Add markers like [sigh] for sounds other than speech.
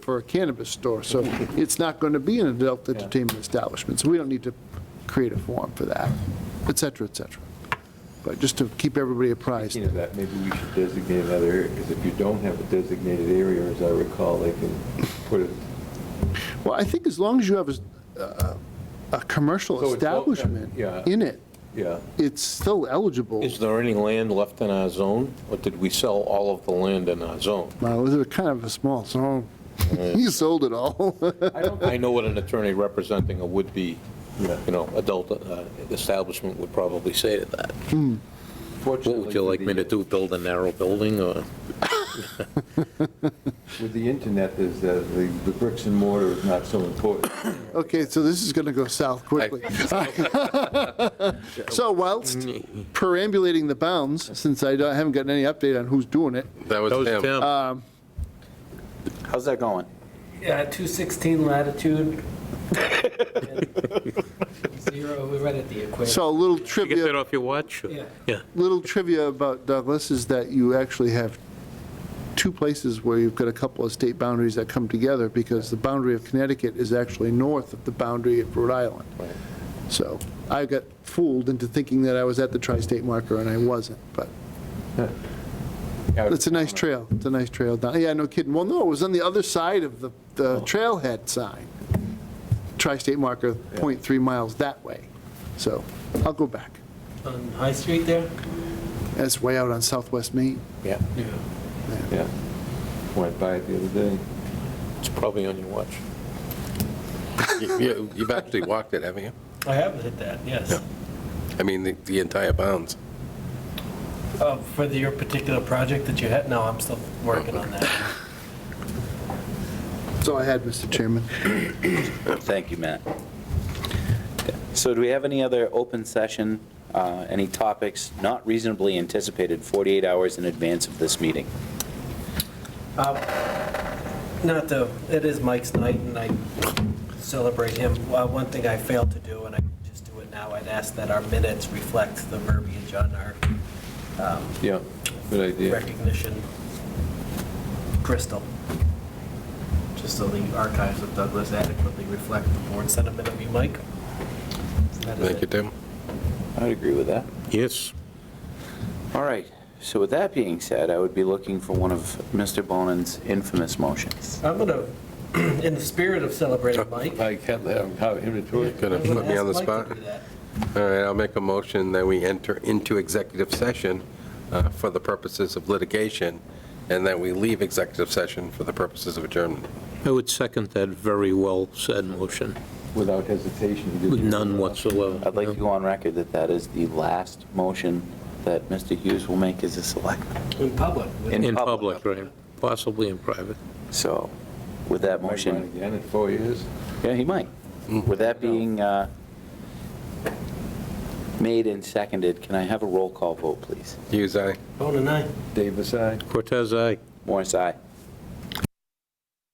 for a cannabis store, so it's not going to be an adult entertainment establishment, so we don't need to create a form for that, et cetera, et cetera. But just to keep everybody apprised. Speaking of that, maybe we should designate another area, because if you don't have a designated area, as I recall, they can put it. Well, I think as long as you have a, a- a commercial So it's all- establishment yeah. in it, yeah. it's still eligible. Is there any land left in our zone, or did we sell all of the land in our zone? Well, it was a kind of a small zone. [laughs] He sold it all. [laughs] [laughs] I don't I think, know what an attorney representing a would-be, Yeah. you know, adult uh, establishment would probably say to that. What fortunately. would you like me to do, build a narrow building, or? With the internet, is that the the bricks and mortar is not so important. Okay, so this is going to go south quickly. [laughs] So whilst perambulating the bounds, since I don't- I haven't gotten any update on who's doing it, That was him. Uh, How's that going? Yeah, 216 [laughs] latitude. Zero, we're right at the equator. so a little You get that trivia, off your watch? Yeah. Yeah. little trivia about Douglas is that you actually have two places where you've got a couple of state boundaries that come together because the boundary of Connecticut is actually north of the boundary of Rhode Island. So I got fooled into thinking that I was at the tri-state marker and I wasn't, but It's a nice trail, it's a nice trail down, yeah, no kidding, well, no, it was on the other side of the, the trailhead sign. Tri-state marker, .3 miles that way, so I'll go back. On High Street there? That's way out on southwest Maine. Yeah, Yeah. Yeah. Went by it the other day. it's probably on your watch. You- you- You've actually walked it, haven't you? I have hit that, yes. I mean, the- the entire bounds. Uh, For the- your particular project that you had? No, I'm still working on that. That's all I had, Mr. Chairman. Thank you, Matt. So do we have any other open session, uh, any topics not reasonably anticipated 48 hours in advance of this meeting? Not to, it is Mike's night, and I celebrate him. Well, One thing I failed to do, and I just do it now, I'd ask that our minutes reflect the verbiage on our um, Yeah, good idea. recognition crystal, just so the archives of Douglas adequately reflect the board sentiment of you, Mike. That is Thank you, it. Tim. I'd agree with that. Yes. All right, so with that being said, I would be looking for one of Mr. Bonin's infamous motions. I'm gonna, [clears throat] in the spirit of celebrating Mike. I can't have how inventory. Gonna I'm gonna put me on the ask Mike to spot? do that. All right, I'll make a motion that we enter into executive session uh, for the purposes of litigation, and that we leave executive session for the purposes of adjournment. I would second that very well said motion, Without hesitation. you with did- none whatsoever. I'd like to go on record that that is the last motion that Mr. Hughes will make as a selectman. In public. In In public. public, right, possibly in private. So with that Might run motion, Again in four years. yeah, he might. With that being uh, made and seconded, can I have a roll call vote, please? Hughes, aye. Bone and I. Davis, aye. Cortez, aye. Morris, aye.